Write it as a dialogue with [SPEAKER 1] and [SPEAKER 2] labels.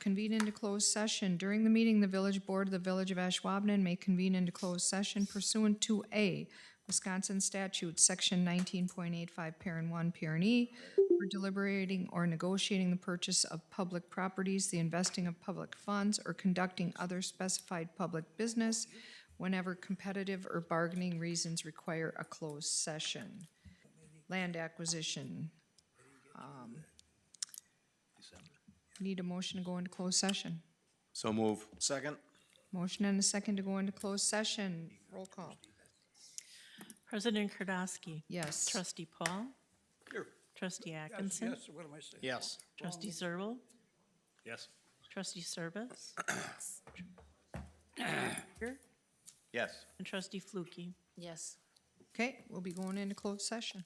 [SPEAKER 1] convene into closed session. During the meeting, the village board of the Village of Ashwaubenon may convene into closed session pursuant to A, Wisconsin statute, section nineteen point eight five, parent one, parent E, for deliberating or negotiating the purchase of public properties, the investing of public funds, or conducting other specified public business whenever competitive or bargaining reasons require a closed session. Land acquisition. um, Need a motion to go into closed session.
[SPEAKER 2] So move. Second?
[SPEAKER 1] Motion and a second to go into closed session. Roll call.
[SPEAKER 3] President Kardasky.
[SPEAKER 1] Yes.
[SPEAKER 3] Trustee Paul.
[SPEAKER 4] Here.
[SPEAKER 3] Trustee Atkinson.
[SPEAKER 4] Yes, what am I saying?
[SPEAKER 2] Yes.
[SPEAKER 3] Trustee Zerbal.
[SPEAKER 4] Yes.
[SPEAKER 3] Trustee Service.
[SPEAKER 2] Yes.
[SPEAKER 3] And Trustee Flukie.
[SPEAKER 5] Yes.
[SPEAKER 1] Okay, we'll be going into closed session.